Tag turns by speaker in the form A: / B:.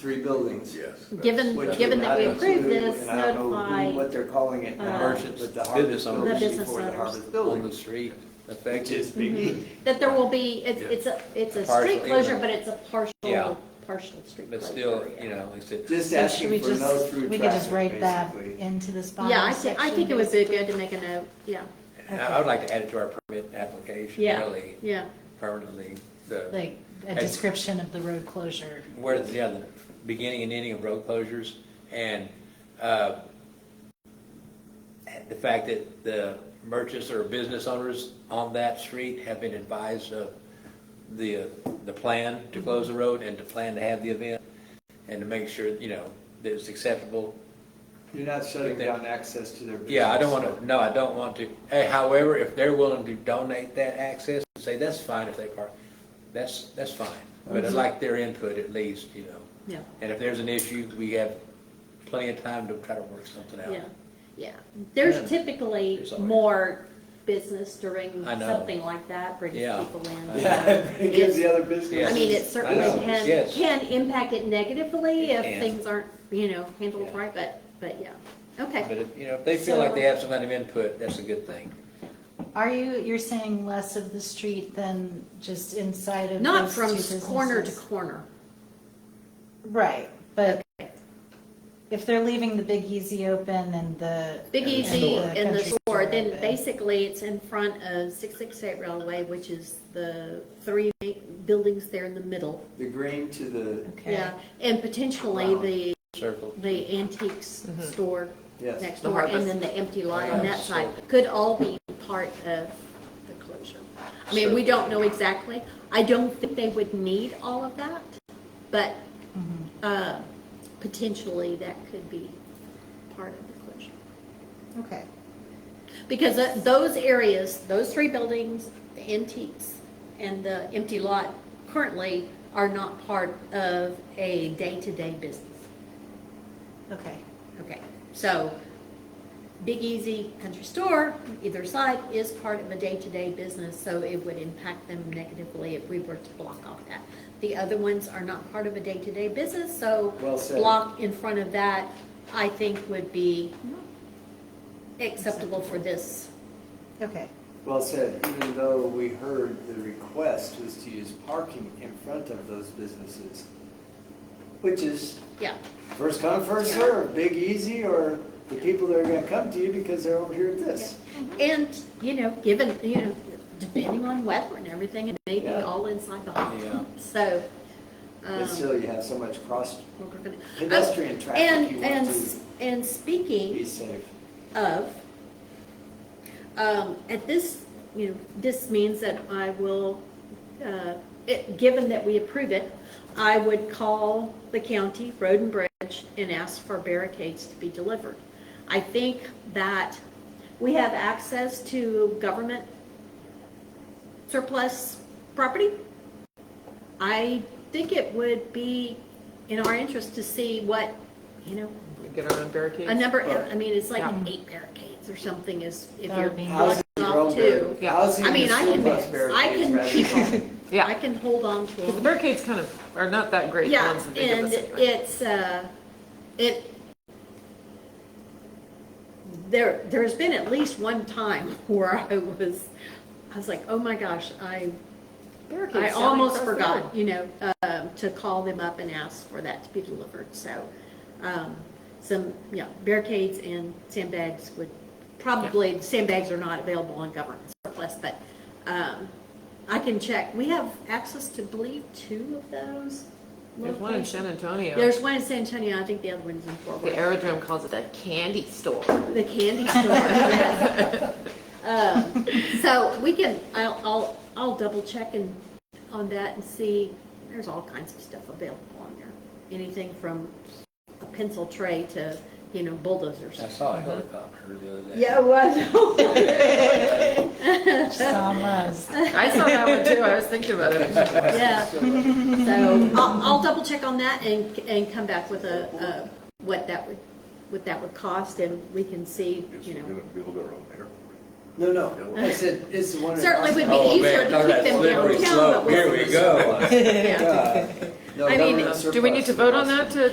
A: three buildings.
B: Yes.
C: Given,
A: which
C: given
A: would
C: that we
A: not
C: approve
A: include-
C: this,
A: and I don't know who-
C: notify,
A: What they're calling it, the
C: uh,
A: hardship, but the harvest
D: owners.
A: notice
C: The business
A: before the
C: owners. Mm-hmm.
A: harvest
D: on the
A: building.
D: street.
A: Which is big.
C: that there will be, it's, it's a, it's a street
D: Partial.
C: closure, but it's a
D: Yeah.
C: partial, partial street closure.
D: But still, you know, like I said,
A: Just
E: So should we
A: asking for
E: just,
A: no through
E: we could just
A: traffic,
E: write that
A: basically.
E: into this bottom
C: Yeah, I
E: section?
C: think, I think it would be good to make a note, yeah,
D: and I would like to add it to our permit application,
C: Yeah.
D: really,
C: yeah.
D: permanently, the,
E: Like a description of the road closure.
D: where, yeah, the beginning and ending of road closures, and, uh, the fact that the merchants or business owners on that street have been advised of the, the plan to close the road and to plan to have the event, and to make sure, you know, that it's acceptable
A: You're not shutting
D: They-
A: down access to their business.
D: Yeah, I don't want to, no, I don't want to. Hey, however, if they're willing to donate that access, and say, that's fine if they park, that's, that's fine. But I'd like their input at least, you know.
C: Mm-hmm. Yeah.
D: And if there's an issue, we have plenty of time to try to work something out.
C: Yeah, yeah. There's
D: Yeah.
C: typically
D: There's always-
C: more business during
D: I know.
C: something like that, brings
D: Yeah.
C: people in.
A: Yeah, it gives the other
D: Yes.
C: I
A: business.
C: mean, it certainly
D: I know,
C: can,
D: yes.
C: can impact it negatively if
D: can.
C: things aren't, you know, handled
D: Yeah.
C: right, but, but yeah.
D: But,
C: Okay,
D: if, you know, if they feel like they have some kind of input, that's a good thing.
E: Are you, you're saying less of the street than just inside of
C: not
E: those
C: from
E: two
C: corner to
E: businesses?
C: corner.
E: Right, but if they're leaving the Big Easy open and the.
C: Big
E: and
C: Easy and the
E: country
C: store, then
E: open,
C: basically it's in front of 668 Railway, which is the three ma- buildings there in the middle.
A: The green to the,
E: Okay.
C: Yeah, and potentially
D: Circle.
C: the, the antiques
E: Mm-hmm.
C: store
A: yes.
C: next
F: The
C: door, and
F: harvest.
C: then the empty lot on that
D: Harvest
C: side,
D: store.
C: could all be part of the closure. I mean, we
D: Sure.
C: don't know exactly. I don't think they would need all of that, but
E: Mm-hmm.
C: uh, potentially that could be part of the closure.
E: Okay,
C: Because uh, those areas, those three buildings, the antiques and the empty lot currently are not part of a day-to-day business.
E: okay.
C: Okay, so Big Easy Country Store, either side, is part of a day-to-day business, so it would impact them negatively if we were to block off that. The other ones are not part of a day-to-day business, so
A: Well said.
C: block in front of that, I think would be acceptable for this.
E: Okay,
A: Well said, even though we heard the request was to use parking in front of those businesses, which is
C: Yeah,
A: first come, first serve. Big Easy or the people that are gonna come to you because they're over here at this.
C: and, you know, given, you know, depending on weather and everything, it may be
A: Yeah.
C: all inside the
D: Yeah.
C: hall, so.
A: But
C: um,
A: still, you have so much cross
C: we're gonna-
A: pedestrian traffic, you
C: Oh, And,
A: want
C: and,
A: to
C: s- and
A: be
C: speaking
A: safe.
C: of, um, at this, you know, this means that I will, uh, it, given that we approve it, I would call the county road and bridge and ask for barricades to be delivered. I think that we have access to government surplus property. I think it would be in our interest to see what, you know,
F: We Get our own
C: a
F: barricades?
C: number, I mean, it's like
F: Yeah.
C: eight barricades or something is, if
E: That
C: you're
E: would be
C: blocking off two.
F: Yeah.
A: Housing
C: I mean, I
A: school
C: can,
A: bus
C: I
A: barricades
C: can
A: rather
C: keep
A: than-
C: on, I
F: Yeah,
C: can hold on to
F: because the
C: them.
F: barricades kind of are not that great. the
C: Yeah,
F: ones that they give
C: and
F: us anyway.
C: it's, uh, it, there, there's been at least one time where I was, I was like, oh my gosh, I, I
F: Barricades sound
C: almost
F: like those
C: forgot,
F: sound.
C: you know, um, to call them up and ask for that to be delivered, so, um, some, yeah, barricades and sandbags would, probably, sandbags are not available on government surplus, but, um, I can check, we have access to, believe, two of those
F: There's one in
C: locations.
F: San Antonio.
C: There's one in San Antonio, I think the other one's in Fort
F: The
C: Worth.
F: aerodrome calls it a candy store.
C: The candy store, yes. Um, So we can, I'll, I'll, I'll double check and, on that and see, there's all kinds of stuff available on there. Anything from a pencil tray to, you know, bulldozers.
D: I saw a helicopter the other day.
C: Yeah, it was.
E: Tom Rose.
F: I saw that one too. I was thinking about it.
C: Yeah, so I'll, I'll double check on that and, and come back with a, uh, what that would, what that would cost and we can see, you know.
B: build our own airport.
A: No, no, I said, it's the one. in
C: Certainly would
A: Austin.
C: be
D: Oh,
C: easier
D: man,
C: to
D: talk
C: keep
D: about
C: them
D: slippery
C: downtown,
D: slope.
C: but we'll
D: Here we go.
C: Yeah.
A: Yeah. Uh, No,
C: I mean,
A: government
F: Do we need to
A: surplus
F: vote on
A: is
F: that
A: awesome.
F: to